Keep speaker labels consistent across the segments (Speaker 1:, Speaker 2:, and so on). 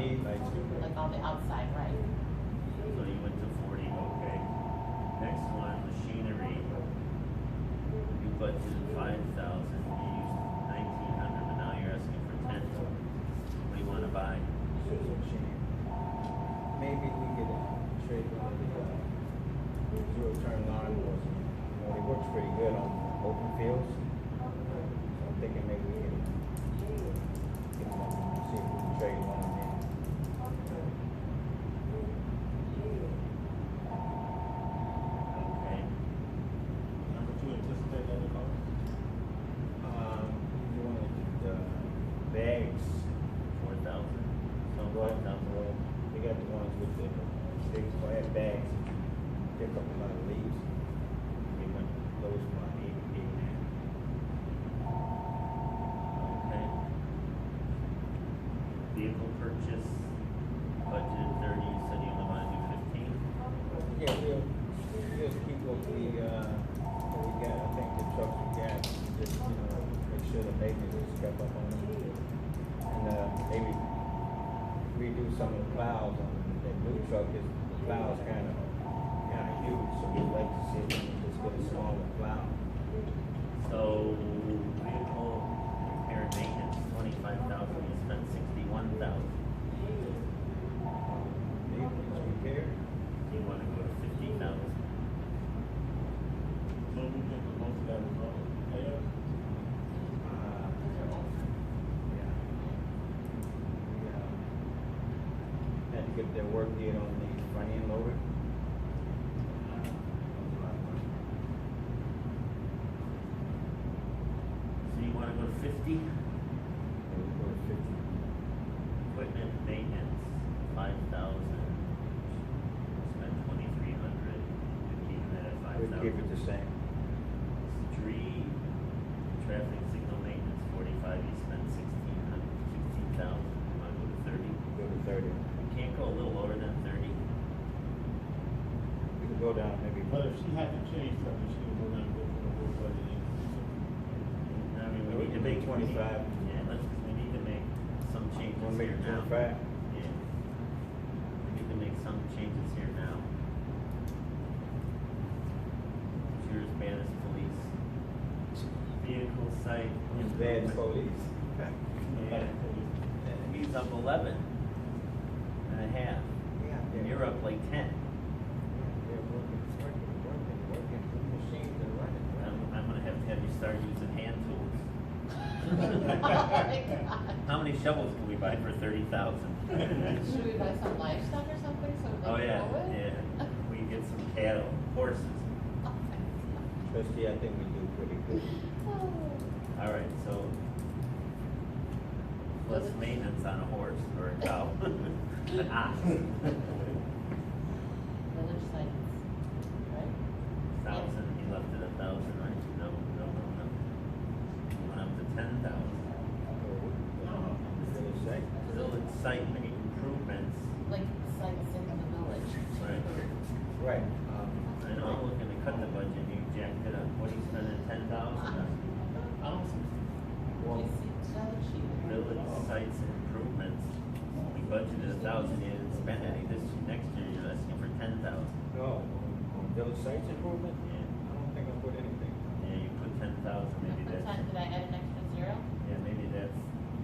Speaker 1: Oh,
Speaker 2: on the outside, right?
Speaker 1: So you went to forty, okay. Next one, machinery. You budgeted five thousand, you used nineteen hundred, but now you're asking for ten. What do you wanna buy?
Speaker 3: Maybe we could uh, trade on the uh, zero turn lawnmowers. You know, they work pretty good on open fields. So I'm thinking maybe we can get one, see if we can trade one in.
Speaker 1: Okay.
Speaker 4: Number two, anticipate other costs.
Speaker 3: Um, you want the bags?
Speaker 1: Four thousand? So
Speaker 3: Well,
Speaker 1: five thousand.
Speaker 3: well, They got the ones with the sticks, so I have bags. Pick up a lot of leaves. They went those one eighty eight now.
Speaker 1: Okay. Vehicle purchase, budgeted thirty, you said you only wanna do fifteen?
Speaker 3: Yeah, we'll, we'll keep what we, uh, what we got, I think the trucks we got, we just, you know, make sure the maintenance is kept up on them. And, uh, maybe redo some of the plows on that new truck, is, the plow's kinda, kinda huge, so we'd like to see if we can just get a smaller plow.
Speaker 1: So vehicle repair and maintenance, twenty-five thousand, you spent sixty-one thousand.
Speaker 3: Vehicles repaired,
Speaker 1: Do you wanna go to fifty thousand?
Speaker 4: So we think the most of that was wrong. Yeah.
Speaker 3: uh, yeah. We, uh, had to get their work did on the front end loader.
Speaker 1: So you wanna go to fifty? Equipment maintenance, five thousand. Spent twenty-three hundred, keep that at
Speaker 3: I
Speaker 1: five
Speaker 3: would keep it
Speaker 1: thousand.
Speaker 3: the same.
Speaker 1: Street, traffic signal maintenance, forty-five, you spent sixteen hundred, sixteen thousand, you wanna go to thirty?
Speaker 3: Go to thirty.
Speaker 1: You can't go a little lower than thirty?
Speaker 3: We can go down maybe.
Speaker 4: But if she had to change something, she would not go for the whole budget.
Speaker 1: I mean, we
Speaker 3: We
Speaker 1: need to
Speaker 3: can
Speaker 1: make.
Speaker 3: make 25.
Speaker 1: Yeah, let's, we need to make some changes
Speaker 3: Wanna make
Speaker 1: here
Speaker 3: it
Speaker 1: now.
Speaker 3: twenty-five?
Speaker 1: Yeah. We need to make some changes here now. Sheriff's Bannis Police. Vehicle site.
Speaker 3: Bad police.
Speaker 1: Yeah. He's up eleven and a half,
Speaker 3: Yeah,
Speaker 1: and
Speaker 3: they're
Speaker 1: you're up like ten.
Speaker 3: They're working, working, working, working, the machines are running.
Speaker 1: I'm, I'm gonna have to have you start using hand tools.
Speaker 2: Should
Speaker 1: How many shovels can we buy for thirty thousand?
Speaker 2: we buy some livestock or something so we
Speaker 1: Oh,
Speaker 2: can
Speaker 1: yeah,
Speaker 2: grow it?
Speaker 1: yeah, we can get some cattle, horses.
Speaker 2: Oh,
Speaker 3: Trustee, I think we do pretty good.
Speaker 1: All right, so less maintenance on a horse or a cow. An ox.
Speaker 2: Village sites, right?
Speaker 1: Thousand, he left it a thousand, right? No, no, no, no. He Went up to ten thousand.
Speaker 3: Really safe.
Speaker 1: Village site made improvements,
Speaker 2: Like sites in the village.
Speaker 1: right?
Speaker 3: Right. um,
Speaker 1: I know I'm looking to cut the budget, you jacked it up, what are you spending ten thousand on?
Speaker 2: I don't see,
Speaker 3: well,
Speaker 2: you see another sheet.
Speaker 1: Village sites improvements, we budgeted a thousand, you didn't spend any this, next year you're asking for ten thousand.
Speaker 3: No, on village sites improvement, I
Speaker 1: Yeah,
Speaker 3: don't think I put anything.
Speaker 1: yeah, you put ten thousand, maybe
Speaker 2: What
Speaker 1: that's,
Speaker 2: time did I add an extra zero?
Speaker 1: yeah, maybe that's,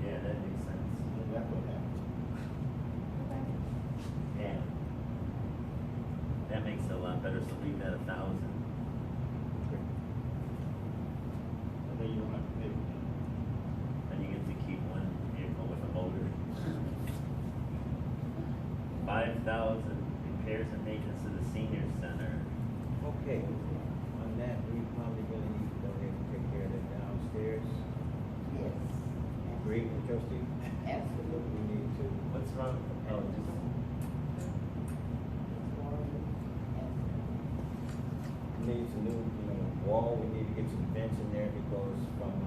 Speaker 1: yeah, that makes sense.
Speaker 4: That's what happened.
Speaker 1: Yeah. That makes it a lot better, so leave that a thousand.
Speaker 4: And then you don't have to pay for it.
Speaker 1: Then you get to keep one vehicle with a motor. Five thousand repairs and maintenance to the senior center.
Speaker 3: Okay, on that, we probably really need to go ahead and take care of that downstairs.
Speaker 2: Yes.
Speaker 3: Agree with trustee?
Speaker 2: Absolutely.
Speaker 3: We need to.
Speaker 1: What's wrong? Oh, just,
Speaker 3: Need some new, you know, wall, we need to get some vents in there because from